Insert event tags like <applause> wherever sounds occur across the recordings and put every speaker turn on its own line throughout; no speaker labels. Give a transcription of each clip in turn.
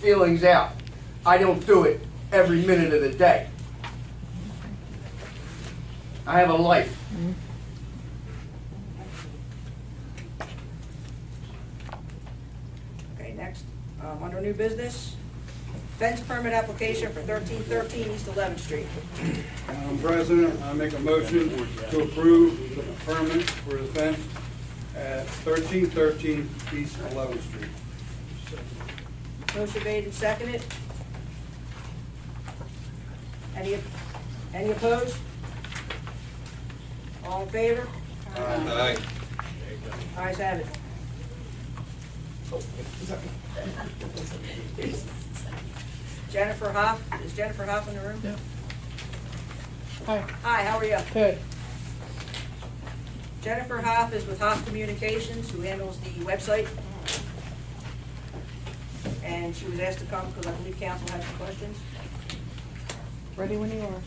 feelings out. I don't do it every minute of the day. I have a life.
Okay, next, um, under new business, fence permit application for thirteen thirteen East Eleventh Street.
Madam President, I make a motion to approve the permit for the fence at thirteen thirteen East Eleventh Street.
Motion made and seconded. Any, any opposed? All in favor?
Aye.
Ayes have
<laughs>
it. Jennifer Hoff, is Jennifer Hoff in the room?
Yeah. Hi.
Hi, how are you?
Good.
Jennifer Hoff is with Hoff Communications, who handles the website. And she was asked to come because I believe council had some questions.
Ready when you are.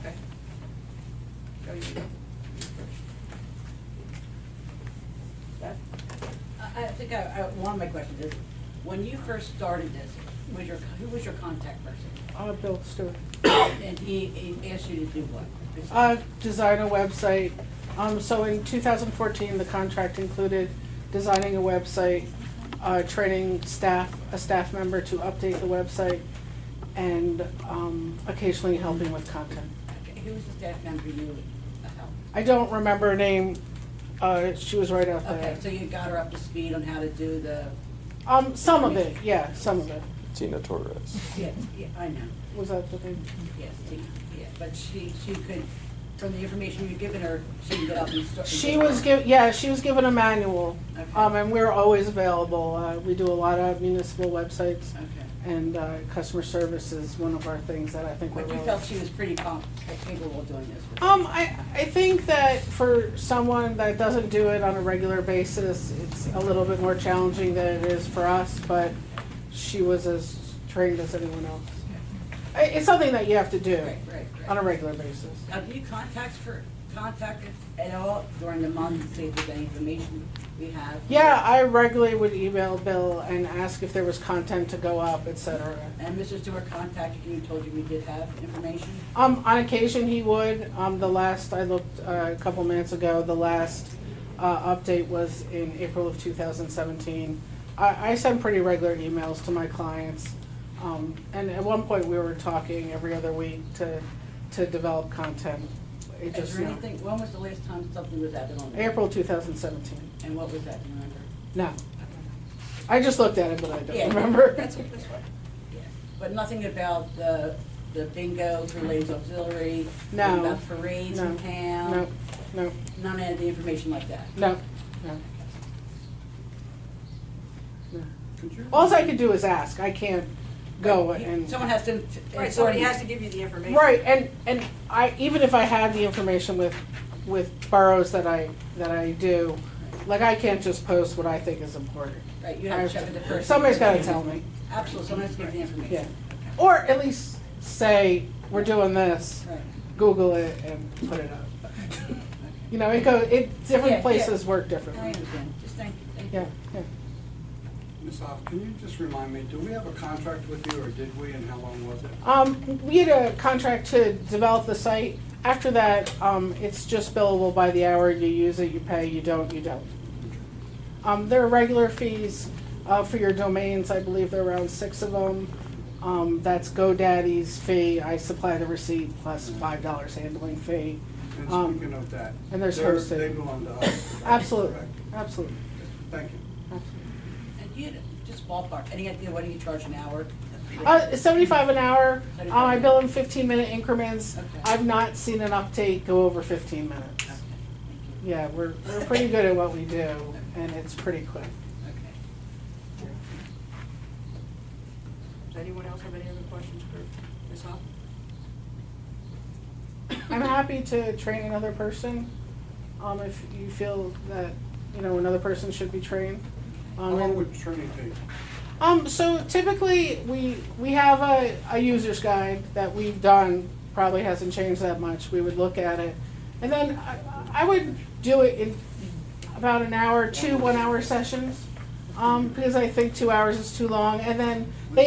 Okay. Go, you go. Beth?
I I think I, I, one of my questions is, when you first started this, was your, who was your contact person?
Uh, Bill Stewart.
And he, he asked you to do what?
Uh, design a website. Um, so in two thousand fourteen, the contract included designing a website, uh, training staff, a staff member to update the website, and, um, occasionally helping with content.
Okay, Who was the staff member you helped?
I don't remember her name, uh, she was right out
Okay,
there.
so you got her up to speed on how to do the,
Um, some of it, yeah, some of it.
Tina Torres.
yeah, yeah, I know,
Was that the thing?
yes, Tina, yeah, but she, she could, from the information you've given her, she can get up and start.
She was giv yeah, she was given a manual,
Okay.
um, and we're always available. Uh, we do a lot of municipal websites,
Okay,
and, uh, customer service is one of our things that I think we're
but you
really.
felt she was pretty com- capable of doing this. with-
Um, I, I think that for someone that doesn't do it on a regular basis, it's a little bit more challenging than it is for us, but she was as trained as anyone else. I- It's something that you have to do
Right, right, right.
on a regular basis.
Have you contact for, contacted at all during the month to see if there's any information we have?
Yeah, I regularly would email Bill and ask if there was content to go up, et cetera.
And Mr. Stewart contacted you, and told you we did have information?
Um, on occasion, he would. Um, the last, I looked uh, a couple minutes ago, the last uh, update was in April of 2017. I, I send pretty regular emails to my clients. Um, and at one point, we were talking every other week to, to develop content. It
Is
just,
there
no.
anything, when was the last time something was added on? there?
April 2017.
And what was that, do you remember?
No. I just looked at it, but I
Yeah.
don't remember.
That's, that's fine.
But nothing about the, the bingo for ladies auxiliary?
No.
nothing About parades
No.
in town?
No, no,
None of the information like that?
no, no. No.
Could you-
Alls I could do is ask, I can't go and.
Someone has to.
Right, somebody has to give you the information.
Right, and, and I, even if I had the information with, with boroughs that I, that I do, like, I can't just post what I think is important.
Right, you have to check with the person.
Somebody's gotta tell me,
Absolutely, someone has to give the
yeah.
information.
Or at least say, we're doing this,
Right.
Google it and put it
<laughs>
up. You know, it go, it,
Yeah,
different
yeah.
places work
I
differently.
understand, just thank you, thank you.
Yeah, yeah.
Ms. Hoff, can you just remind me, do we have a contract with you, or did we, and how long was it?
Um, we had a contract to develop the site. After that, um, it's just billable by the hour. You use it, you pay, you don't, you don't. Um, there are regular fees, uh, for your domains. I believe there are around six of them. Um, that's GoDaddy's fee. I supply the receipt plus five dollars handling fee.
And
Um,
speaking of that.
and there's
they're-
hosted.
They belong to us. correct?
Absolutely,
Correct.
absolutely,
Thank you.
absolutely.
And you, just ballpark, any idea what do you charge an hour?
Uh, seventy-five an hour. Um, I
75.
bill in fifteen-minute increments.
Okay.
I've not seen an uptake go over fifteen minutes.
Okay, thank you.
Yeah, we're, we're pretty good at what we do, and it's pretty quick.
Okay.
Does anyone else have any other questions for Ms. Hoff?
I'm happy to train another person, um, if you feel that, you know, another person should be trained.
How
Um,
long
and-
would training take?
Um, so typically, we, we have a, a user's guide that we've done, probably hasn't changed that much, we would look at it. And then I, I would do it in about an hour, two one-hour sessions. um, because I think two hours is too long. And then they